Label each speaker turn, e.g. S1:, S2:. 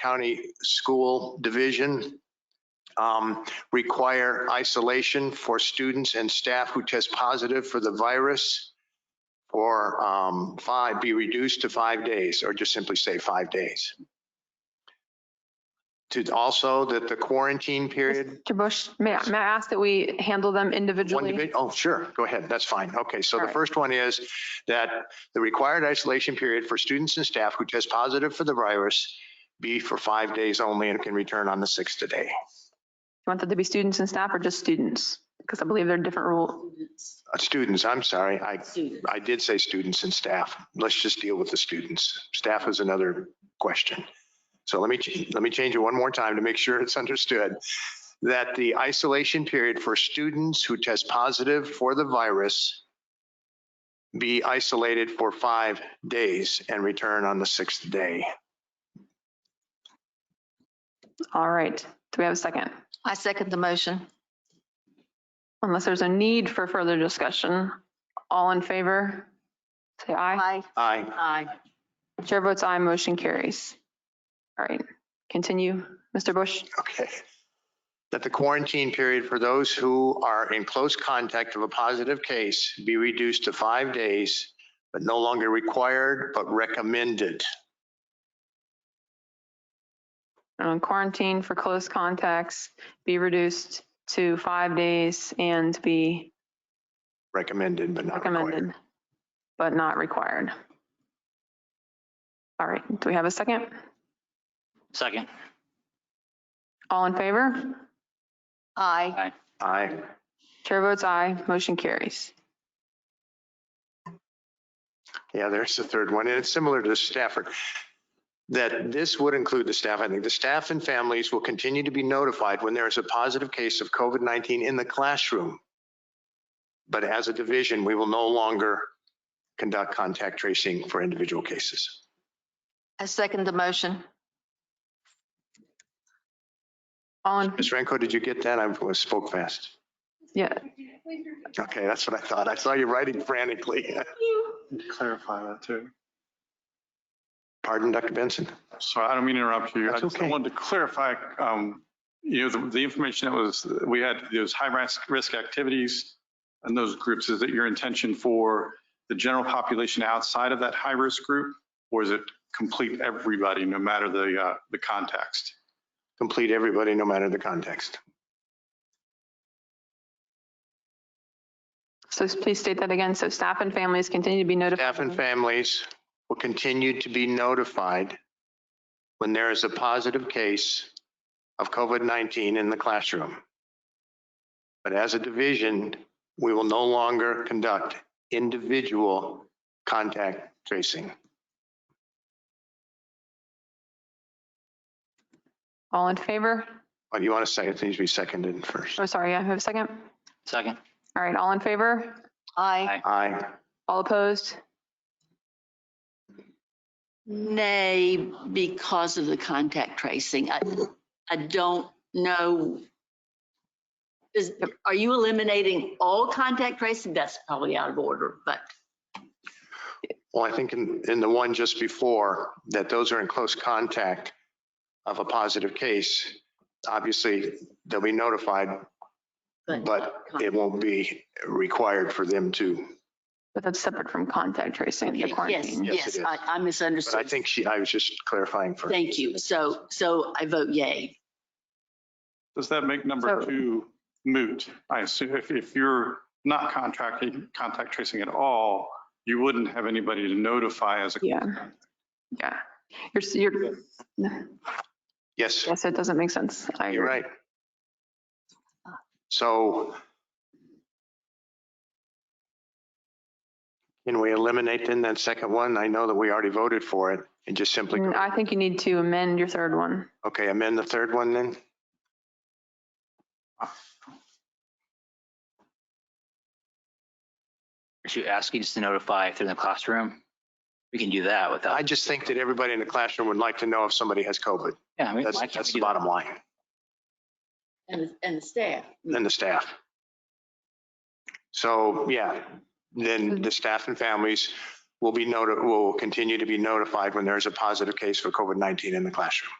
S1: County School Division um, require isolation for students and staff who test positive for the virus or um, five, be reduced to five days, or just simply say five days. To also that the quarantine period,
S2: Mr. Bush, may I, may I ask that we handle them
S1: one,
S2: individually?
S1: divi- oh, sure, go ahead, that's fine. Okay, so the
S2: Alright.
S1: first one is that the required isolation period for students and staff who test positive for the virus be for five days only and can return on the sixth day.
S2: You want that to be students and staff or just students? Because I believe there are different rules.
S1: Uh, Students, I'm sorry, I,
S3: Student.
S1: I did say students and staff. Let's just deal with the students. Staff is another question. So let me, ch- let me change it one more time to make sure it's understood. That the isolation period for students who test positive for the virus be isolated for five days and return on the sixth day.
S2: All right. Do we have a second?
S3: I second the motion.
S2: Unless there's a need for further discussion, all in favor, say aye.
S3: Aye.
S1: Aye.
S3: Aye.
S2: Chair votes aye, motion carries. All right, continue, Mr. Bush.
S1: Okay. That the quarantine period for those who are in close contact of a positive case be reduced to five days, but no longer required, but recommended.
S2: Um, Quarantine for close contacts be reduced to five days and be
S1: Recommended, but not required.
S2: recommended, but not required. All right, do we have a second?
S4: Second.
S2: All in favor?
S3: Aye.
S1: Aye.
S2: Chair votes aye, motion carries.
S1: Yeah, there's the third one, and it's similar to Stafford. That this would include the staff. I think the staff and families will continue to be notified when there is a positive case of COVID-19 in the classroom. But as a division, we will no longer conduct contact tracing for individual cases.
S3: I second the motion.
S2: All in,
S1: Ms. Renko, did you get that? I was- spoke fast.
S2: yeah,
S1: Okay, that's what I thought. I saw you writing frantically.
S5: Need to clarify that too.
S1: Pardon, Dr. Benson?
S5: Sorry, I don't mean to interrupt you. I
S1: That's
S5: just
S1: okay.
S5: wanted to clarify, um, you know, the, the information that was, we had those high risk, risk activities and those groups, is it your intention for the general population outside of that high risk group? Or is it complete everybody, no matter the, uh, the context?
S1: Complete everybody, no matter the context.
S2: so please state that again. So staff and families continue to be notified.
S1: Staff and families will continue to be notified when there is a positive case of COVID-19 in the classroom. But as a division, we will no longer conduct individual contact tracing.
S2: All in favor?
S1: But you want to say it needs to be seconded first.
S2: Oh, sorry, I have a second.
S4: Second.
S2: All right, all in favor?
S3: Aye.
S4: Aye.
S1: Aye.
S2: All opposed?
S6: Nay, because of the contact tracing. I, I don't know. Is, are you eliminating all contact tracing? That's probably out of order, but
S1: Well, I think in, in the one just before, that those are in close contact of a positive case. Obviously, they'll be notified,
S6: But-
S1: but it won't be required for them to.
S2: But that's separate from contact tracing, the
S6: okay, yes,
S2: quarantine.
S1: Yes, it
S6: yes,
S1: is.
S6: I, I
S1: But I
S6: misunderstood.
S1: think she, I was just clarifying for.
S6: Thank you. So, so I vote yay.
S5: Does that make number
S2: So-
S5: two moot? I assume if, if you're not contracting, contact tracing at all, you wouldn't have anybody to notify as a
S2: Yeah, yeah. You're, you're,
S1: Yes,
S2: yes, it doesn't make sense. I
S1: you're
S2: agree.
S1: right. So. Can we eliminate then that second one? I know that we already voted for it and just simply,
S2: Mm, I think you need to amend your third one.
S1: okay, amend the third one then?
S4: Are you asking us to notify if they're in the classroom? We can do that
S1: I
S4: without,
S1: just think that everybody in the classroom would like to know if somebody has COVID.
S4: yeah, I mean,
S1: That's,
S4: why can't
S1: that's
S4: we
S1: the
S4: do that?
S1: bottom line,
S6: And, and the staff.
S1: and the staff. So, yeah,
S4: Mm-hmm.
S1: then the staff and families will be noted, will continue to be notified when there's a positive case for COVID-19 in the classroom.